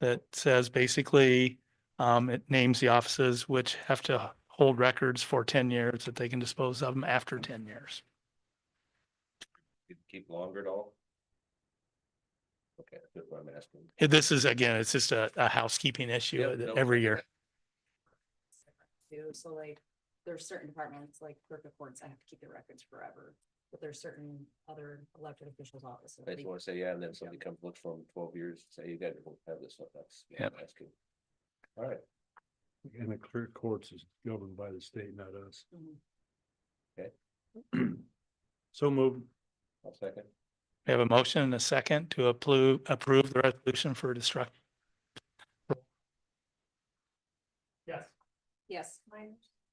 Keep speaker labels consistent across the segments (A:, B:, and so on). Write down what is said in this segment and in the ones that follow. A: that says basically, um, it names the offices which have to hold records for ten years that they can dispose of them after ten years.
B: You'd Keep longer at all? Okay, that's what I'm asking.
A: This is, again, it's just a, a housekeeping
B: Yep,
A: issue that
B: no,
A: every year.
C: too. So like, there's certain departments like clerk of courts, I have to keep the records forever. But there's certain other elected officials offices.
B: I
C: that
B: just
C: you-
B: wanna say, yeah, and then somebody comes, looks for 'em twelve years, say, you guys don't have this stuff, that's. what
A: Yep.
B: I'm Asking. All right,
D: And the clear courts is governed by the state, not us.
C: Mhm.
D: So moved.
B: I'll second.
A: We have a motion and a second to approve, approve the resolution for destruct. Yes.
C: Yes.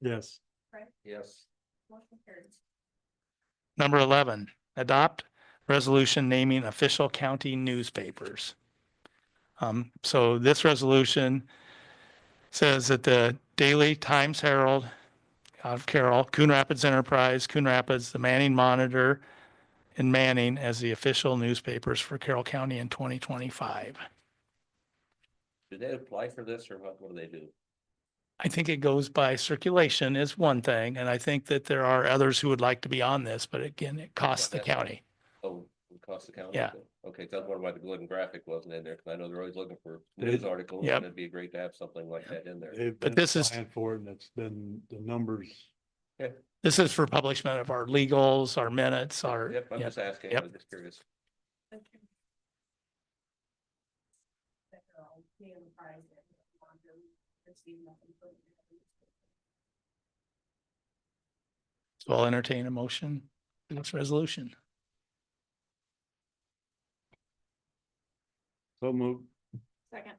D: Yes.
B: Yes,
C: Motion carries.
A: Number eleven, adopt resolution naming official county newspapers. Um, so this resolution says that the Daily Times Herald out of Carroll, Coon Rapids Enterprise, Coon Rapids, the Manning Monitor, and Manning as the official newspapers for Carroll County in twenty twenty-five.
B: did they apply for this or what, what do they do?
A: I think it goes by circulation is one thing, and I think that there are others who would like to be on this, but again, it costs the
B: that's fine.
A: county.
B: Oh, it costs the county?
A: Yeah.
B: Okay, that's one why the Glidden graphic wasn't in there, because I know they're always looking for news articles,
A: Yep.
B: and it'd be great to have something like that in there.
D: They've
A: But
D: been
A: this is-
D: applying For it and it's been the numbers.
A: This is for publication of our legals, our minutes, our,
B: Yep, I'm
A: yeah.
B: just asking,
A: Yep.
B: I'm just curious.
A: so I'll entertain a motion in this resolution.
D: So moved.
C: Second.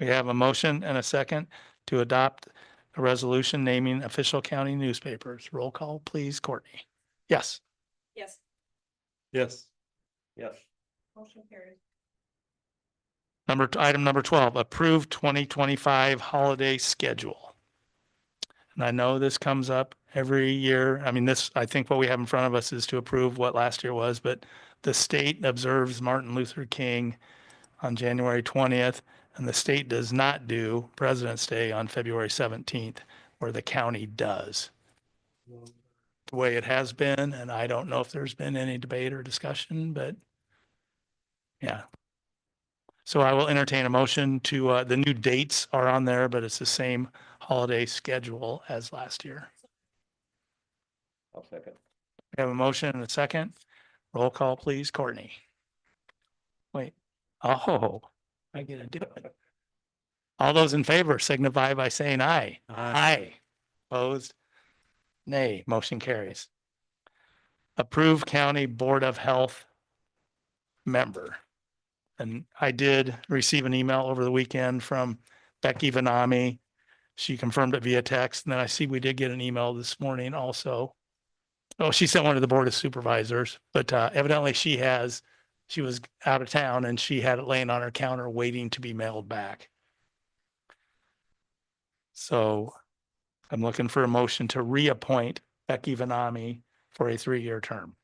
A: We have a motion and a second to adopt a resolution naming official county newspapers. Roll call, please, Courtney. Yes.
C: Yes.
D: Yes.
B: Yes,
C: Motion carries.
A: Number, t- item number twelve, approve twenty twenty-five holiday schedule. And I know this comes up every year. I mean, this, I think what we have in front of us is to approve what last year was, but the state observes Martin Luther King on January twentieth, and the state does not do President's Day on February seventeenth, where the county does. The way it has been, and I don't know if there's been any debate or discussion, but yeah, so I will entertain a motion to, uh, the new dates are on there, but it's the same holiday schedule as last year.
B: I'll second.
A: We have a motion and a second. Roll call, please, Courtney. Wait, oh, I get to do it. All those in favor signify by saying aye. Aye. Opposed? Nay, motion carries. Approve County Board of Health member. And I did receive an email over the weekend from Becky Vanami. She confirmed it via text, and then I see we did get an email this morning also. Oh, she sent one to the Board of Supervisors, but uh, evidently she has, she was out of town and she had it laying on her counter waiting to be mailed back. So I'm looking for a motion to reappoint Becky Vanami for a three-year term.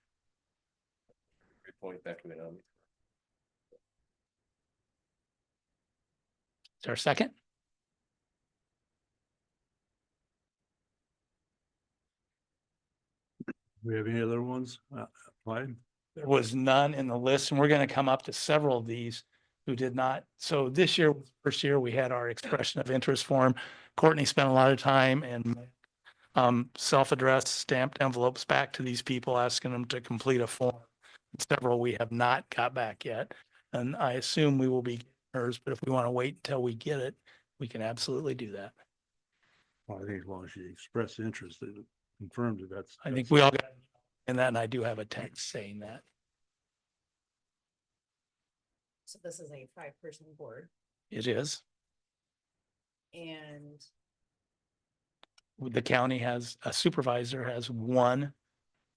B: Report back to me on.
A: Is there a second?
D: We have any other ones uh, applied?
A: There was none in the list, and we're gonna come up to several of these who did not. So this year, first year, we had our expression of interest form. Courtney spent a lot of time and um, self-addressed stamped envelopes back to these people, asking them to complete a form. Several we have not got back yet, and I assume we will be getting hers, but if we want to wait until we get it, we can absolutely do that.
D: Well, I think as long as you express interest, it confirms that that's.
A: I think we all got, and then I do have a text saying that.
C: So this is a five-person board
A: It is.
C: and
A: the county has, a supervisor has one,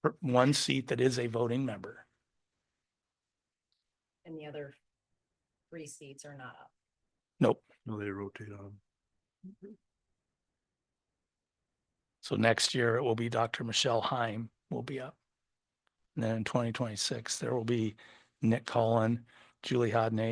A: per- one seat that is a voting member.
C: and the other three seats are not up.
A: Nope.
D: No, they rotate on.
A: So next year it will be Dr. Michelle Heim will be up. And then in twenty twenty-six, there will be Nick Cullen, Julie Hodney,